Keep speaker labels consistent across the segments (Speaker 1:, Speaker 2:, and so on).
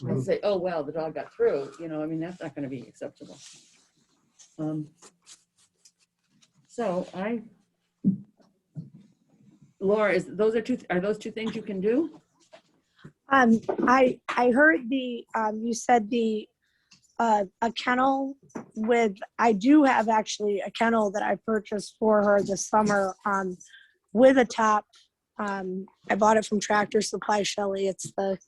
Speaker 1: and
Speaker 2: absolutely.
Speaker 1: say, oh, wow, the dog got through, you know, I mean, that's not gonna be acceptable. Um, So I, Laura, is, those are two, are those two things you can do?
Speaker 3: Um, I, I heard the, um, you said the, uh, a kennel with, I do have actually a kennel that I purchased for her this summer, um, with a top. Um, I bought it from Tractor Supply Shelley. It's the,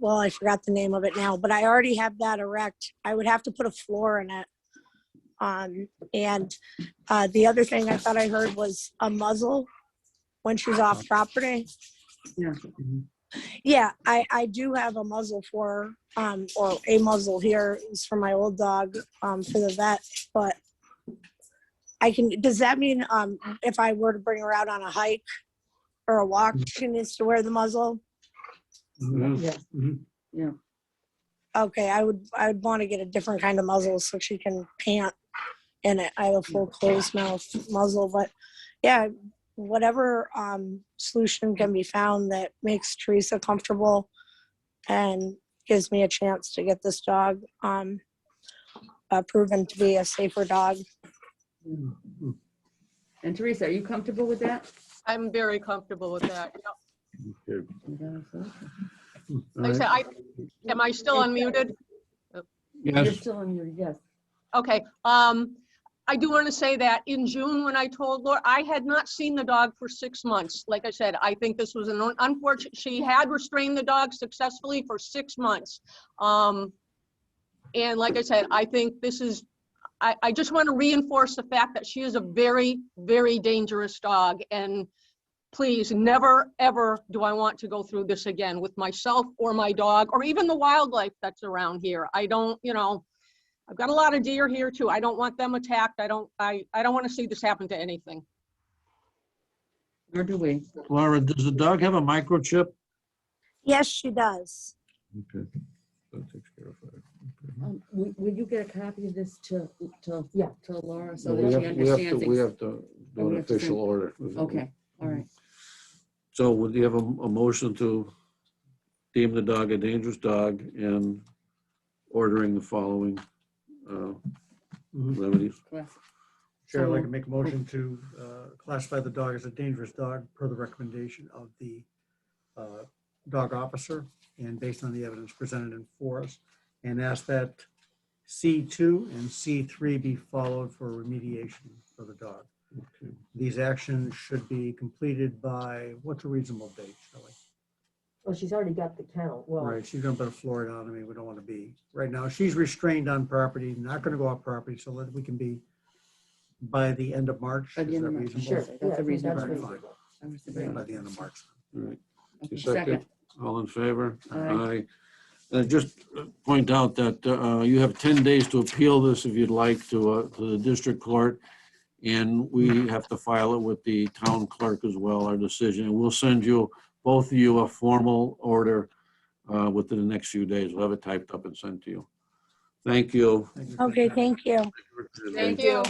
Speaker 3: well, I forgot the name of it now, but I already have that erect. I would have to put a floor in it. Um, and, uh, the other thing I thought I heard was a muzzle when she's off property.
Speaker 2: Mhm.
Speaker 3: Yeah, I, I do have a muzzle for, um, or a muzzle here is for my old dog, um, for the vet, but I can, does that mean, um, if I were to bring her out on a hike or a walk, she needs to wear the muzzle?
Speaker 2: Mhm.
Speaker 4: Mm-hmm.
Speaker 1: Yeah.
Speaker 2: Mhm.
Speaker 3: Okay, I would, I would want to get a different kind of muzzle so she can pant in it. I have a full closed mouth muzzle, but yeah, whatever, um, solution can be found that makes Teresa comfortable and gives me a chance to get this dog, um, uh, proven to be a safer dog.
Speaker 2: Mhm.
Speaker 1: And Teresa, are you comfortable with that?
Speaker 5: I'm very comfortable with that. Yep.
Speaker 2: Okay.
Speaker 4: Mm-hmm.
Speaker 2: All
Speaker 5: Like I
Speaker 2: right.
Speaker 5: said, I, am I still unmuted?
Speaker 1: You're
Speaker 4: Yes,
Speaker 1: still on your, yes.
Speaker 5: Okay, um, I do want to say that in June, when I told Laura, I had not seen the dog for six months. Like I said, I think this was an un- unfortunate, she had restrained the dog successfully for six months. Um, and like I said, I think this is, I, I just want to reinforce the fact that she is a very, very dangerous dog. And please, never, ever do I want to go through this again with myself or my dog, or even the wildlife that's around here. I don't, you know, I've got a lot of deer here too. I don't want them attacked. I don't, I, I don't want to see this happen to anything.
Speaker 1: Nor do we.
Speaker 4: Laura, does the dog have a microchip?
Speaker 3: Yes, she does.
Speaker 2: Okay. That takes care of that.
Speaker 1: Um, Will will you get a copy of this to, to, yeah, to Laura so
Speaker 2: No,
Speaker 1: that
Speaker 2: we
Speaker 1: she
Speaker 2: have- we have to- We have to
Speaker 1: understands? ex- Oh,
Speaker 2: do
Speaker 1: we
Speaker 2: an
Speaker 1: have to
Speaker 2: official
Speaker 1: send-
Speaker 2: order.
Speaker 1: Okay, all right.
Speaker 4: So would you have a, a motion to deem the dog a dangerous dog and ordering the following uh,
Speaker 2: Mm-hmm.
Speaker 6: Mhm.
Speaker 4: remedies?
Speaker 1: Class-
Speaker 6: Chair, I'd like
Speaker 1: So-
Speaker 6: to make a motion to uh, classify the dog as a dangerous dog per the recommendation of the uh, dog officer and based on the evidence presented in force. And ask that C2 and C3 be followed for remediation for the dog.
Speaker 2: Okay.
Speaker 6: These actions should be completed by, what's a reasonable date, Shelley?
Speaker 7: Well, Oh, she's already got the kennel. Well,
Speaker 6: Right, she's gonna put a floor down. I mean, we don't want to be, right now, she's restrained on property, not gonna go off property, so that we can be by the end of March.
Speaker 1: By the
Speaker 6: is
Speaker 1: end
Speaker 6: that
Speaker 1: of March, sure,
Speaker 6: reasonable?
Speaker 7: yeah, I
Speaker 1: that's a
Speaker 7: think
Speaker 1: reasonable.
Speaker 7: that's
Speaker 6: Right,
Speaker 1: reason.
Speaker 6: fine.
Speaker 7: reasonable.
Speaker 1: I was
Speaker 6: Yeah,
Speaker 1: agreeing.
Speaker 6: By the end of March.
Speaker 4: All right.
Speaker 1: Okay,
Speaker 2: Second.
Speaker 1: Second,
Speaker 4: All in favor?
Speaker 1: Aye.
Speaker 4: And just uh, point out that uh, you have 10 days to appeal this if you'd like to, uh, to the district court. And we have to file it with the town clerk as well, our decision. And we'll send you, both of you, a formal order uh, within the next few days. We'll have it typed up and sent to you. Thank you.
Speaker 6: Thank you.
Speaker 3: Okay, thank you.
Speaker 1: Thank
Speaker 5: you.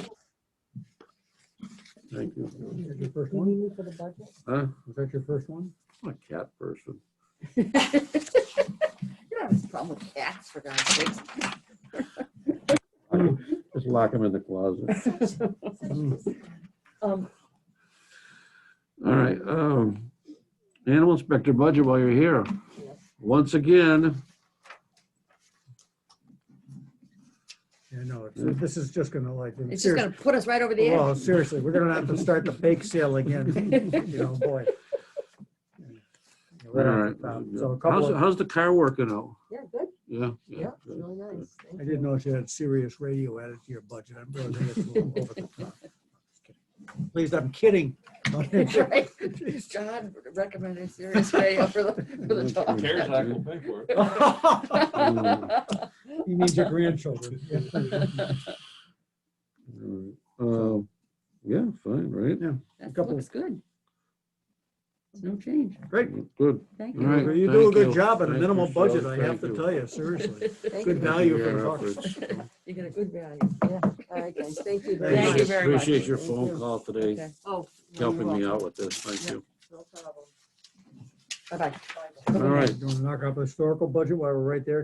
Speaker 4: Thank you.
Speaker 6: Is that your first
Speaker 7: You
Speaker 6: one?
Speaker 7: need me for the budget?
Speaker 4: Huh?
Speaker 6: Was that your first one?
Speaker 4: I'm a cat person.
Speaker 1: You don't have a problem with cats, for God's sakes.
Speaker 4: Just lock him in the closet.
Speaker 1: Um,
Speaker 4: All right, um, animal inspector budget while you're here. Once again,
Speaker 6: Yeah, no, it's- this is just gonna like.
Speaker 1: It's just gonna put us right over the edge.
Speaker 6: Well, seriously, we're gonna have to start the bake sale again, you know, boy.
Speaker 4: all
Speaker 6: Right off
Speaker 4: right.
Speaker 6: the top. So a couple
Speaker 4: How's,
Speaker 6: of.
Speaker 4: how's the car working out?
Speaker 7: Yeah, good.
Speaker 4: Yeah.
Speaker 7: Yeah, it's
Speaker 4: good.
Speaker 7: really nice. Thank
Speaker 6: I
Speaker 7: you.
Speaker 6: didn't know if you had serious radio added to your budget. I'm really think it's a little over the top. Please, I'm kidding.
Speaker 1: That's right. John recommended serious radio for the, for the dog.
Speaker 4: CARES Act will
Speaker 8: pay for it.
Speaker 6: You need your grandchildren. A
Speaker 4: Uh, Yeah, fine, right?
Speaker 1: That
Speaker 6: Couple.
Speaker 1: looks good. No change.
Speaker 4: Good.
Speaker 1: Thank
Speaker 4: All right.
Speaker 1: you.
Speaker 6: You do a
Speaker 4: Thank
Speaker 6: good
Speaker 4: you.
Speaker 6: job at a
Speaker 4: Thank you,
Speaker 6: minimal
Speaker 4: Shelley.
Speaker 6: budget, I have
Speaker 4: Thank
Speaker 6: to
Speaker 4: you.
Speaker 6: tell you, seriously.
Speaker 7: Thank
Speaker 6: Good
Speaker 7: you.
Speaker 6: value for
Speaker 4: Your
Speaker 6: your buck.
Speaker 4: efforts.
Speaker 1: You get a good value.
Speaker 7: All right, guys, thank you.
Speaker 6: Thank
Speaker 1: Thank
Speaker 6: you.
Speaker 1: you very much.
Speaker 4: Appreciate your
Speaker 7: Thank
Speaker 4: phone
Speaker 7: you.
Speaker 4: call today,
Speaker 1: Okay. Oh,
Speaker 4: helping me out with this. Thank
Speaker 1: Yeah.
Speaker 4: you.
Speaker 7: No problem. Bye-bye.
Speaker 2: All right.
Speaker 6: Don't knock out the historical budget while we're right there,